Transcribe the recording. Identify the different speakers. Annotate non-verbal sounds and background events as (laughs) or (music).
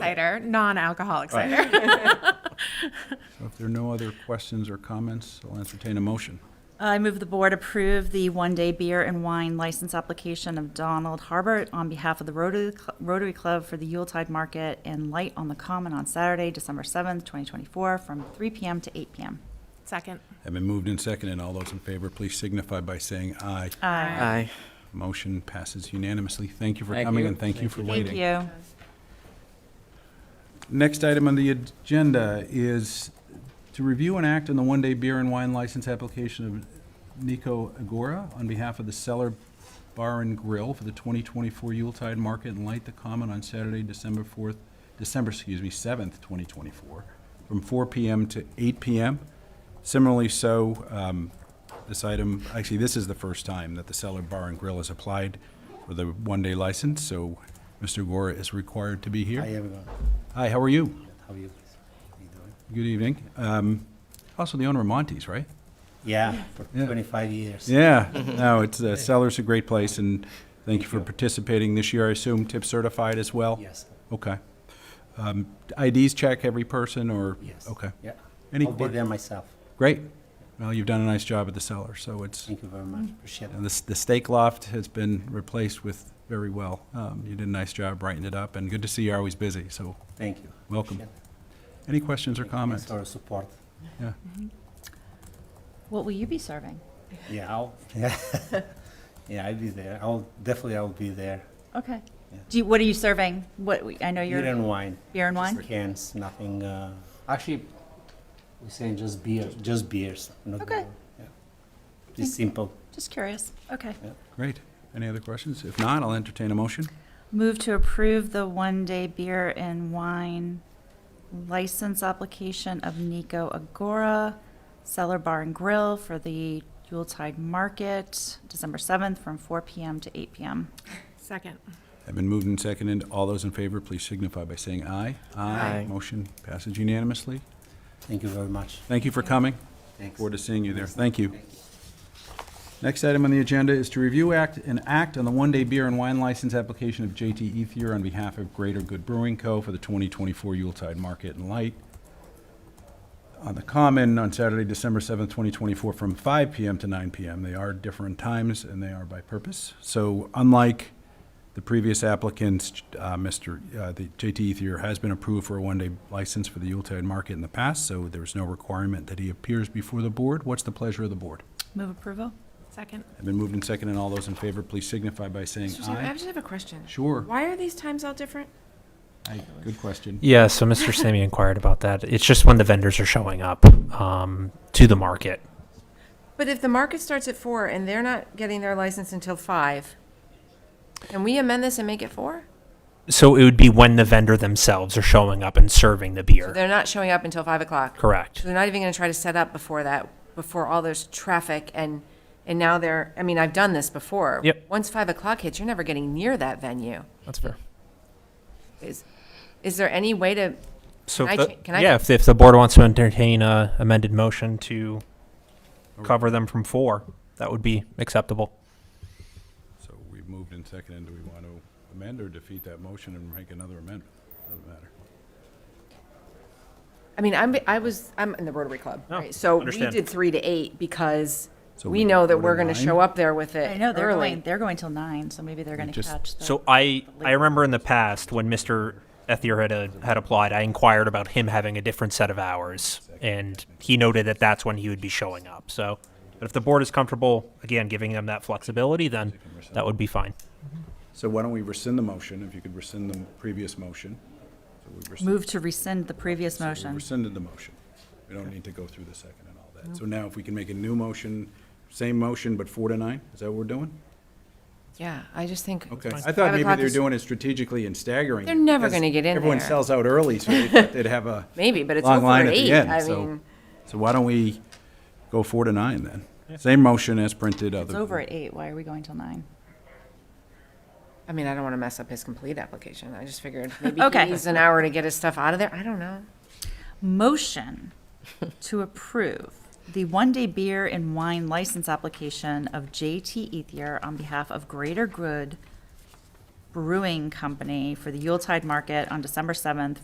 Speaker 1: cider, non-alcoholic
Speaker 2: Right.
Speaker 1: cider. (laughs)
Speaker 3: So if there are no other questions or comments, I'll entertain a motion.
Speaker 4: I move the board approve the one-day beer and wine license application of Donald Harbert on behalf of the Rotary Cl- Rotary Club for the Yuletide Market and Light on the Common on Saturday, December 7th, 2024, from 3 PM to 8 PM.
Speaker 1: Second.
Speaker 3: Have been moved and seconded. All those in favor, please signify by saying aye.
Speaker 1: Aye.
Speaker 2: Aye.
Speaker 3: Motion passes unanimously. Thank you for
Speaker 2: Thank
Speaker 3: coming
Speaker 2: you.
Speaker 3: and thank you for waiting.
Speaker 4: Thank you.
Speaker 3: Next item on the agenda is to review and act on the one-day beer and wine license application of Nico Agora on behalf of the Cellar Bar and Grill for the 2024 Yuletide Market and Light the Common on Saturday, December 4th, December, excuse me, 7th, 2024, from 4 PM to 8 PM. Similarly, so, um, this item, actually, this is the first time that the Cellar Bar and Grill has applied for the one-day license, so Mr. Agora is required to be here.
Speaker 5: Hi, everyone.
Speaker 3: Hi, how are you?
Speaker 5: How are you? How you doing?
Speaker 3: Good evening. Um, Also the owner of Monty's, right?
Speaker 5: Yeah, for
Speaker 3: Yeah.
Speaker 5: 25 years.
Speaker 3: Yeah,
Speaker 5: Mm-hmm.
Speaker 3: no, it's, uh, Seller's a great place, and thank you for participating this year. I assume tip certified as well?
Speaker 5: Yes,
Speaker 3: Okay. Um, IDs check every person, or?
Speaker 5: yes.
Speaker 3: Okay,
Speaker 5: Yeah.
Speaker 3: Any
Speaker 5: I'll be
Speaker 3: que-
Speaker 5: there myself.
Speaker 3: great. Well, you've done a nice job at the Cellar, so it's,
Speaker 5: Thank you very much. Appreciate
Speaker 3: you know,
Speaker 5: it.
Speaker 3: this- the steak loft has been replaced with very well. Um, You did a nice job brightening it up, and good to see you're always busy, so
Speaker 5: Thank you.
Speaker 3: welcome.
Speaker 5: Appreciate it.
Speaker 3: Any questions or
Speaker 5: Thank you.
Speaker 3: comments?
Speaker 5: Thanks for your support.
Speaker 3: Yeah.
Speaker 4: What will you be serving?
Speaker 5: Yeah, I'll, yeah. (laughs) yeah, I'll be there. I'll, definitely I'll be there.
Speaker 4: Okay.
Speaker 5: Yeah.
Speaker 4: Do you, what are you serving? What, we- I know
Speaker 5: Beer
Speaker 4: you're
Speaker 5: and wine.
Speaker 4: beer and
Speaker 5: Just
Speaker 4: wine?
Speaker 5: Cans, nothing, uh, actually, we're saying just beer, just beers. not
Speaker 4: Okay.
Speaker 5: beer. Yeah. Just simple.
Speaker 4: Just curious. Okay.
Speaker 3: Great. Any other questions? If not, I'll entertain a motion.
Speaker 4: Move to approve the one-day beer and wine license application of Nico Agora, Cellar Bar and Grill for the Yuletide Market, December 7th, from 4 PM to 8 PM.
Speaker 1: Second.
Speaker 3: Have been moved and seconded. All those in favor, please signify by saying aye.
Speaker 2: Aye.
Speaker 3: Motion passes unanimously.
Speaker 5: Thank you very much.
Speaker 3: Thank you for coming.
Speaker 5: Thanks.
Speaker 3: Forward to seeing you there. Thank you. Next item on the agenda is to review act and act on the one-day beer and wine license application of JT Ethier on behalf of Greater Good Brewing Co. for the 2024 Yuletide Market and Light on the Common on Saturday, December 7th, 2024, from 5 PM to 9 PM. They are different times, and they are by purpose. So unlike the previous applicants, uh, Mr., uh, the JT Ethier has been approved for a one-day license for the Yuletide Market in the past, so there's no requirement that he appears before the board. What's the pleasure of the board?
Speaker 4: Move approval?
Speaker 1: Second.
Speaker 3: I've been moved and seconded, and all those in favor, please signify by saying
Speaker 6: Susan, I
Speaker 3: aye.
Speaker 6: just have a question.
Speaker 3: Sure.
Speaker 6: Why are these times all different?
Speaker 3: Aye. Good question.
Speaker 7: Yeah, so Mr. Sammy inquired about that. It's just when the vendors are showing up um, to the market.
Speaker 6: But if the market starts at four and they're not getting their license until five, can we amend this and make it four?
Speaker 7: So it would be when the vendor themselves are showing up and serving the
Speaker 6: So
Speaker 7: beer.
Speaker 6: they're not showing up until five o'clock. So
Speaker 7: Correct.
Speaker 6: they're not even gonna try to set up before that, before all this traffic and, and now they're, I mean, I've done this before.
Speaker 7: Yep.
Speaker 6: Once five o'clock hits, you're never getting near that venue.
Speaker 7: That's fair.
Speaker 6: Is, is there any way to,
Speaker 7: So,
Speaker 6: Can
Speaker 7: if
Speaker 6: I
Speaker 7: the-
Speaker 6: cha- can I-
Speaker 7: yeah, if, if the board wants to entertain a amended motion to cover them from four, that would be acceptable.
Speaker 3: So we've moved and seconded. Do we want to amend or defeat that motion and make another amendment? Doesn't matter.
Speaker 6: I mean, I'm, I was, I'm in the Rotary Club,
Speaker 7: No,
Speaker 6: right? So we
Speaker 7: understand.
Speaker 6: did three to eight because
Speaker 3: So we
Speaker 6: we know that
Speaker 3: go to
Speaker 6: we're gonna
Speaker 3: nine?
Speaker 6: show up there with it
Speaker 4: I know, they're
Speaker 6: early.
Speaker 4: going, they're going till 9, so maybe they're going to
Speaker 3: just-
Speaker 4: catch the.
Speaker 7: So I, I remember in the past when Mr. Ethier had, uh, had applied, I inquired about him having a different set of hours, and he noted that that's when he would be showing up. So, but if the board is comfortable, again, giving them that flexibility, then that would be fine.
Speaker 3: So why don't we rescind the motion, if you could rescind the previous motion? So we rescind-
Speaker 4: Move to rescind the previous
Speaker 3: so we
Speaker 4: motion.
Speaker 3: Rescinded the motion. We don't need to go through the second and all that. So now if we can make a new motion, same motion, but four to nine, is that what we're doing?
Speaker 6: Yeah, I just think.
Speaker 3: Okay.
Speaker 6: five
Speaker 3: I thought maybe
Speaker 6: o'clock
Speaker 3: they were
Speaker 6: is-
Speaker 3: doing it strategically and staggering.
Speaker 6: They're never
Speaker 3: because
Speaker 6: gonna get in
Speaker 3: Everyone
Speaker 6: there.
Speaker 3: sells out early, so they thought they'd have a
Speaker 6: (laughs) Maybe, but it's
Speaker 3: long
Speaker 6: over
Speaker 3: line
Speaker 6: at
Speaker 3: at the
Speaker 6: eight.
Speaker 3: end,
Speaker 6: I
Speaker 3: so.
Speaker 6: mean,
Speaker 3: So why don't we go four to nine then? Same motion as printed, other.
Speaker 4: It's over at 8, why are we going till 9?
Speaker 6: I mean, I don't want to mess up his complete application. I just figured maybe
Speaker 4: Okay.
Speaker 6: he needs an hour to get his stuff out of there. I don't know.
Speaker 4: Motion to approve the one-day beer and wine license application of JT Ethier on behalf of Greater Good Brewing Company for the Yuletide Market on December 7th